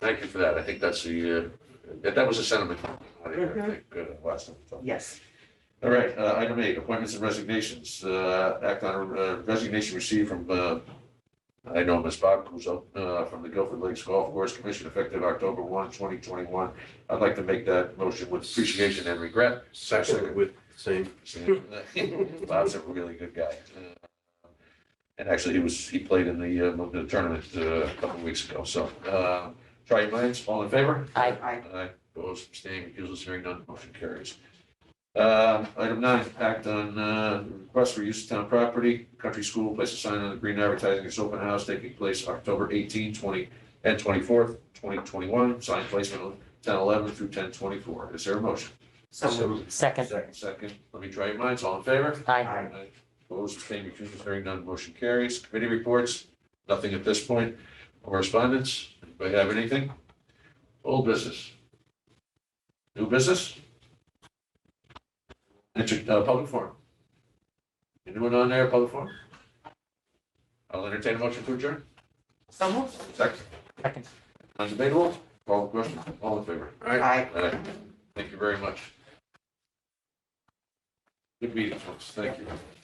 Thank you for that. I think that's the, uh, that that was a sentiment. I think, uh, last time. So, Yes, All right, uh, item eight, appointments and resignations. Uh, act on uh, resignation received from, uh, I know Ms. Bob Kuzo, uh, from the Guilford Lakes Golf Course Commission effective October one, twenty twenty-one. I'd like to make that motion with appreciation and regret. Second with same. Bob's a really good guy. Uh, And actually, he was, he played in the, uh, the tournament uh, a couple of weeks ago, so, uh, try your minds, all in favor? I, I, Aye, opposed, abstaining, recusals, hearing none, motion carries. Uh, Item nine, act on uh, request for use of town property, country school, place a sign on the green advertising its open house taking place October 18, 20, and twenty-fourth, twenty twenty-one, sign placement on ten eleven through ten twenty-four. Is there a motion? so moved. second, Second. Second, let me try your minds, all in favor? I, Opposed, abstaining, recusals, hearing none, motion carries. Committee reports, nothing at this point. Correspondence, anybody have anything? Old business? New business? Enter, uh, public forum? Anyone on there, public forum? I'll entertain a motion to adjourn. so moved. Second, second, non-debatable, call the question, all in favor? I. Aye. Thank you very much. Good meeting, folks, thank you.